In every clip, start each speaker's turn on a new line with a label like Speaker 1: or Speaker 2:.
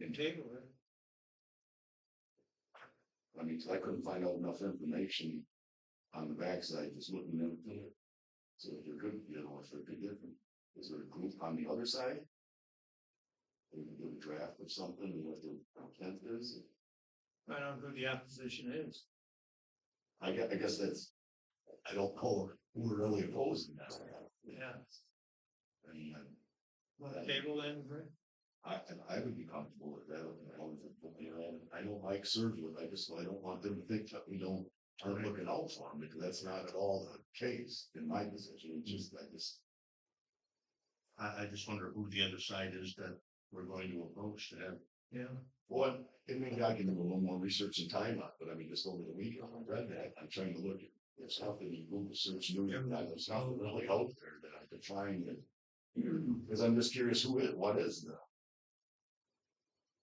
Speaker 1: can table it.
Speaker 2: I mean, 'cause I couldn't find out enough information on the backside, just looking at it. So if there could, you know, if there could different, is there a group on the other side? Maybe do a draft of something, and what the intent is,
Speaker 1: Find out who the opposition is.
Speaker 2: I guess, I guess that's, I don't know, who we're really opposing that.
Speaker 1: Yeah.
Speaker 2: I mean, I-
Speaker 1: Wanna Table then, Brent?
Speaker 2: I, and I would be comfortable with that, and I would, you know, I don't like surgery, I just, I don't want them to think that we don't aren't looking out for them, because that's not at all the case in my position, it's just, I just. I, I just wonder who the other side is that we're going to approach to have,
Speaker 1: Yeah.
Speaker 2: what, and maybe I can do a little more research and time on, it, but I mean, just over the weekend, I read that, I'm trying to look at. There's nothing in Google search, new, there's nothing really out there that I could find, and because I'm just curious who it, what is the?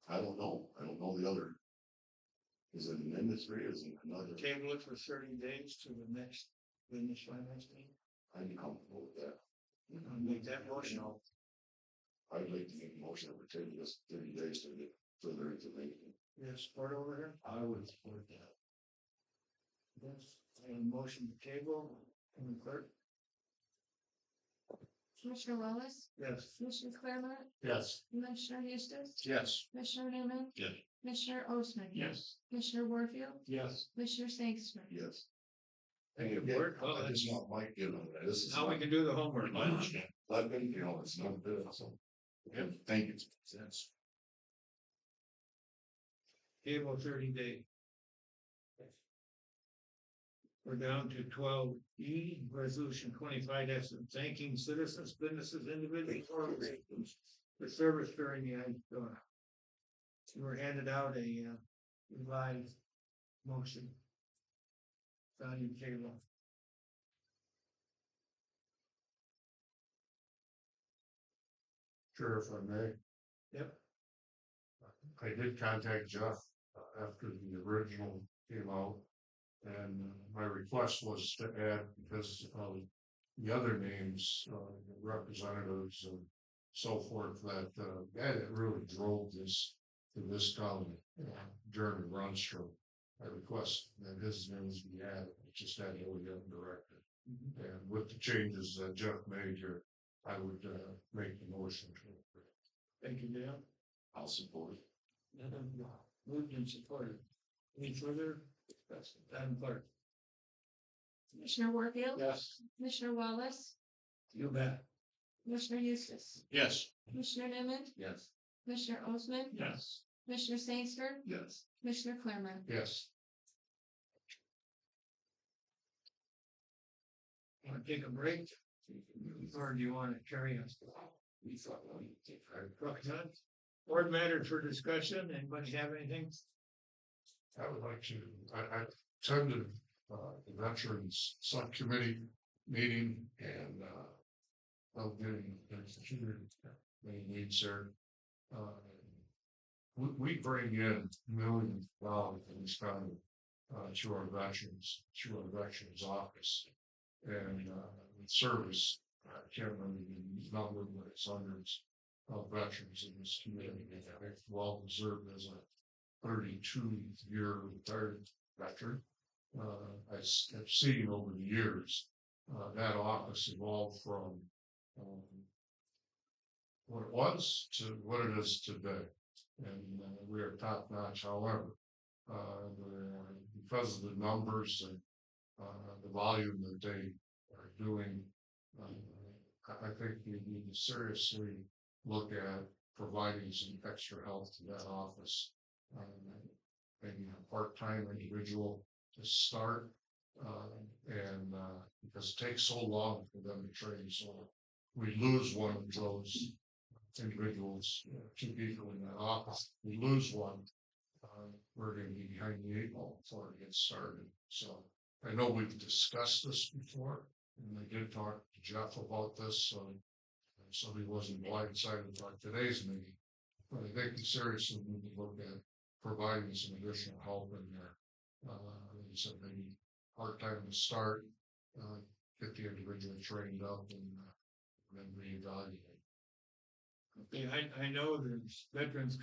Speaker 2: I don't know, I don't know the other. Is it an industry, is it another,
Speaker 1: Table it for thirty days to the next, the next finance meeting.
Speaker 2: I'd be comfortable with that.
Speaker 1: I'll Make that motion.
Speaker 2: I'd like to make a motion over ten, just thirty days to get further information.
Speaker 1: You have support over here?
Speaker 2: I would support that.
Speaker 1: Yes. And motion to table, Commissioner clerk?
Speaker 3: Commissioner Wallace,
Speaker 1: Yes.
Speaker 3: Commissioner Claremont,
Speaker 2: Yes.
Speaker 3: Commissioner Eustace,
Speaker 2: Yes.
Speaker 3: Commissioner Newman.
Speaker 2: Yes.
Speaker 3: Commissioner Osmann.
Speaker 2: Yes.
Speaker 3: Commissioner Warfield,
Speaker 2: Yes.
Speaker 3: Commissioner Sangster.
Speaker 2: Yes.
Speaker 1: Thank you,
Speaker 2: Yeah,
Speaker 1: Board.
Speaker 2: I just want Mike, you know, this is.
Speaker 1: Now we
Speaker 2: not-
Speaker 1: can do the homework.
Speaker 2: Let me, you know, it's not good, so. Thank you.
Speaker 1: Table thirty days. We're down to twelve E, resolution twenty-five that's thanking citizens, businesses, individuals, organizations for service during the ice storm. You were handed out a uh, revised motion. Found your table.
Speaker 4: Sure, if I may.
Speaker 1: Yep.
Speaker 4: I did contact Jeff uh, after the original came out. And my request was to add, because of the other names, uh, representatives and so forth, that, uh, that it really drove this to this colony uh, during the run through. I request that his names be added, just that he would get directed. And with the changes that Jeff made here, I would, uh, make the motion to approve.
Speaker 1: Thank you, Dan.
Speaker 2: I'll support. it.
Speaker 1: Moved and supported. Any further? discussion? Madam Clerk?
Speaker 3: Commissioner Warfield,
Speaker 1: Yes.
Speaker 3: Commissioner Wallace,
Speaker 1: You bet.
Speaker 3: Commissioner Eustace,
Speaker 4: Yes.
Speaker 3: Commissioner Newman,
Speaker 2: Yes.
Speaker 3: Commissioner Osmann,
Speaker 1: Yes.
Speaker 3: Commissioner Sangster,
Speaker 2: Yes.
Speaker 3: Commissioner Claremont.
Speaker 4: Yes.
Speaker 1: Want to take a break? Or do you want to carry us?
Speaker 2: We thought, well, you take
Speaker 1: All right, Brooke, none? Board matters for discussion. Anybody have anything?
Speaker 4: I would like to, I, I attended, uh, the Veterans Subcommittee meeting and, uh, of the, main needs there. Uh, We, we bring in millions of dollars in this county, uh, to our veterans, to our veterans office. And, uh, with service, I can't remember the number, but it's hundreds of veterans in this community. And it's well deserved as a thirty-two year retired veteran. Uh, I s- have seen over the years, uh, that office evolved from, um, what it was to what it is today. And uh, we are top notch, however, uh, the- because of the numbers and, uh, the volume that they are doing, um, I, I think we need to seriously look at providing some extra help to that office um, maybe a part-time individual to start. Uh, and, uh, because it takes so long for them to train, so we lose one of those individuals, you know, two people in that office, we lose one. Uh, we're gonna be behind the eight ball before it gets started, so I know we've discussed this before, and I did talk to Jeff about this, so. Somebody wasn't blindsided by today's meeting, but I think we seriously need to look at providing some additional help in there. Uh, like I said maybe part-time to start, uh, get the individual trained up and uh, then reevaluate.
Speaker 1: Okay, I, I know there's veterans